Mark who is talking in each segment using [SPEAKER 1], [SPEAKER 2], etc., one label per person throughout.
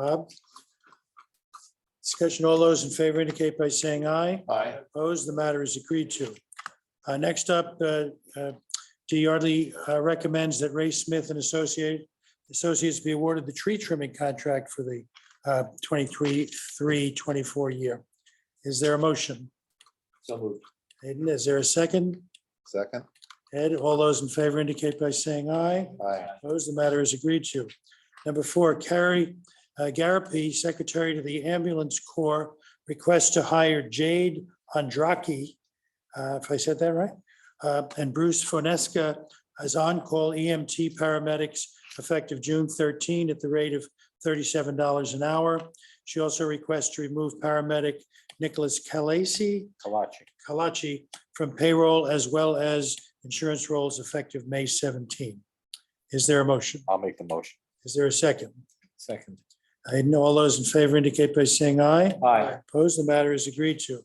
[SPEAKER 1] Bob? Discussion, all those in favor indicate by saying aye.
[SPEAKER 2] Aye.
[SPEAKER 1] Opposed, the matter is agreed to. Uh, Next up, uh, uh, D. Yardley uh, recommends that Ray Smith and Associate, Associates be awarded the tree trimming contract for the uh, 23, 3, 24 year. Is there a motion?
[SPEAKER 2] So moved.
[SPEAKER 1] Hayden, is there a second?
[SPEAKER 2] Second?
[SPEAKER 1] Ed, all those in favor indicate by saying aye.
[SPEAKER 2] Aye.
[SPEAKER 1] Opposed, the matter is agreed to. Number four, Carrie uh, Garapi, Secretary to the Ambulance Corps, requests to hire Jade Andraki, uh, if I said that right, uh, and Bruce Fonesca as on-call EMT paramedics effective June 13 at the rate of $37 an hour. She also requests to remove paramedic Nicholas Calasi
[SPEAKER 2] Kalachi.
[SPEAKER 1] Kalachi from payroll as well as insurance rolls effective May 17. Is there a motion?
[SPEAKER 2] I'll make the motion.
[SPEAKER 1] Is there a second?
[SPEAKER 2] Second.
[SPEAKER 1] I know all those in favor indicate by saying aye.
[SPEAKER 2] Aye.
[SPEAKER 1] Opposed, the matter is agreed to.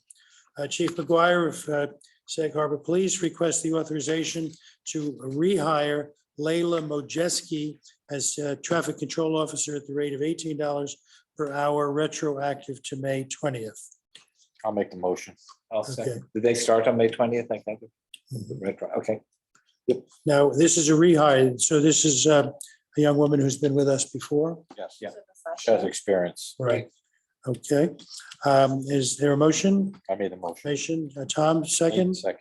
[SPEAKER 1] Uh, Chief McGuire of uh, Sag Harbor Police requests the authorization to rehire Layla Mojeski as uh, traffic control officer at the rate of $18 per hour retroactive to May 20th.
[SPEAKER 2] I'll make the motion. I'll
[SPEAKER 1] Okay.
[SPEAKER 2] Did they start on May twentieth, I think? Retro, okay.
[SPEAKER 1] Now, this is a rehire, so this is uh, a young woman who's been with us before.
[SPEAKER 2] Yes. Yeah. She has experience.
[SPEAKER 1] Right. Okay, Um, is there a motion?
[SPEAKER 2] I made the motion.
[SPEAKER 1] Motion, uh, Tom, second,
[SPEAKER 2] Second.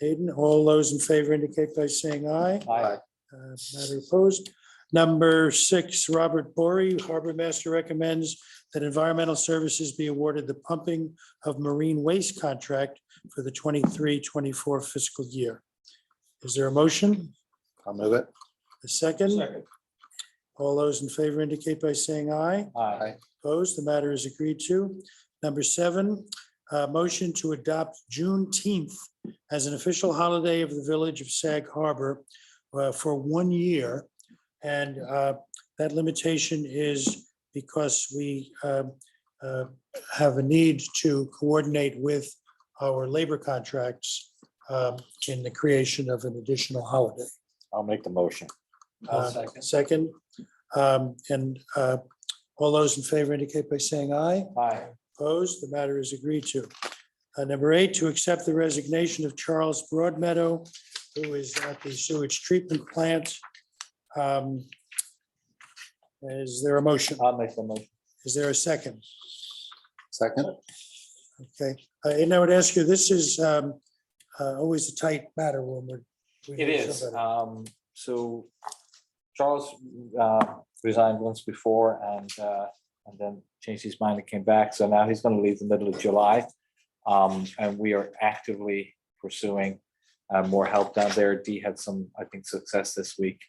[SPEAKER 1] Aiden, all those in favor indicate by saying aye.
[SPEAKER 2] Aye.
[SPEAKER 1] Uh, Matter opposed. Number six, Robert Bory, Harbor Master recommends that Environmental Services be awarded the pumping of marine waste contract for the 23-24 fiscal year. Is there a motion?
[SPEAKER 2] I'll move it.
[SPEAKER 1] A second? All those in favor indicate by saying aye.
[SPEAKER 2] Aye.
[SPEAKER 1] Opposed, the matter is agreed to. Number seven, uh, motion to adopt Juneteenth as an official holiday of the Village of Sag Harbor uh, for one year. And uh, that limitation is because we uh, uh, have a need to coordinate with our labor contracts um, in the creation of an additional holiday.
[SPEAKER 2] I'll make the motion.
[SPEAKER 1] Uh, Second, um, and uh, all those in favor indicate by saying aye.
[SPEAKER 2] Aye.
[SPEAKER 1] Opposed, the matter is agreed to. Uh, Number eight, to accept the resignation of Charles Broadmeadow, who is at the sewage treatment plant. Um, Is there a motion?
[SPEAKER 2] I'll make the motion.
[SPEAKER 1] Is there a second?
[SPEAKER 2] Second?
[SPEAKER 1] Okay, Uh, and I would ask you, this is um, uh, always a tight matter when we're. we
[SPEAKER 2] It
[SPEAKER 1] need
[SPEAKER 2] is.
[SPEAKER 1] somebody.
[SPEAKER 2] Um, so Charles uh, resigned once before and, uh, and then changed his mind and came back. So now he's going to leave the middle of July. Um, and we are actively pursuing uh, more help down there. Dee had some, I think, success this week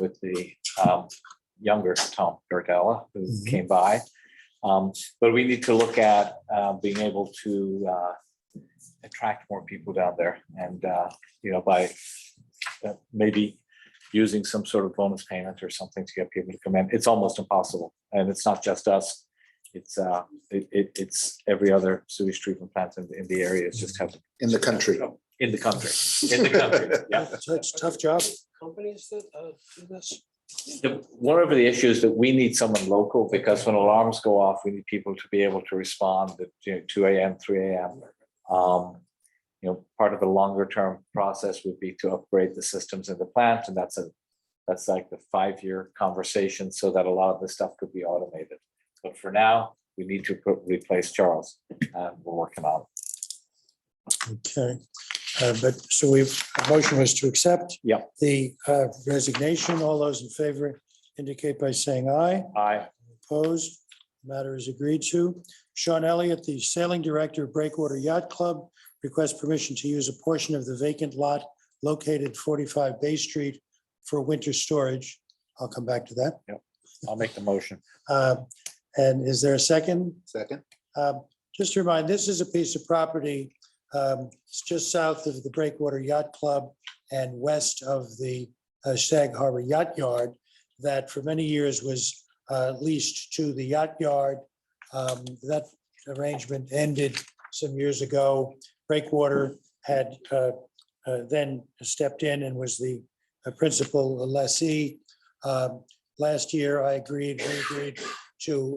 [SPEAKER 2] with the um, younger Tom Gardella who
[SPEAKER 1] Mhm.
[SPEAKER 2] came by. Um, but we need to look at uh, being able to uh, attract more people down there and, uh, you know, by uh, maybe using some sort of bonus payment or something to get people to come in. It's almost impossible. And it's not just us. It's, uh, it, it, it's every other sewage treatment plant in, in the area. It's just having,
[SPEAKER 3] In the country.
[SPEAKER 2] in the country, in the country. Yeah.
[SPEAKER 1] It's a tough job.
[SPEAKER 4] companies that uh, do this?
[SPEAKER 2] The- One of the issues that we need someone local because when alarms go off, we need people to be able to respond at, you know, two AM, three AM. Um, you know, part of the longer term process would be to upgrade the systems in the plant and that's a, that's like the five-year conversation so that a lot of this stuff could be automated. But for now, we need to put- replace Charles and we're working on. it.
[SPEAKER 1] Okay, Uh, but so we've, the motion was to accept.
[SPEAKER 2] Yep.
[SPEAKER 1] The uh, resignation, all those in favor indicate by saying aye.
[SPEAKER 2] Aye.
[SPEAKER 1] Opposed, matter is agreed to. Sean Elliott, the sailing director of Breakwater Yacht Club, requests permission to use a portion of the vacant lot located 45 Bay Street for winter storage. I'll come back to that.
[SPEAKER 2] I'll make the motion.
[SPEAKER 1] Uh, And is there a second?
[SPEAKER 3] Second.
[SPEAKER 1] Um, Just to remind, this is a piece of property um, it's just south of the Breakwater Yacht Club and west of the uh, Sag Harbor Yacht Yard that for many years was uh, leased to the yacht yard. Um, That arrangement ended some years ago. Breakwater had uh, uh, then stepped in and was the uh, principal lessee. Um, Last year, I agreed, we agreed to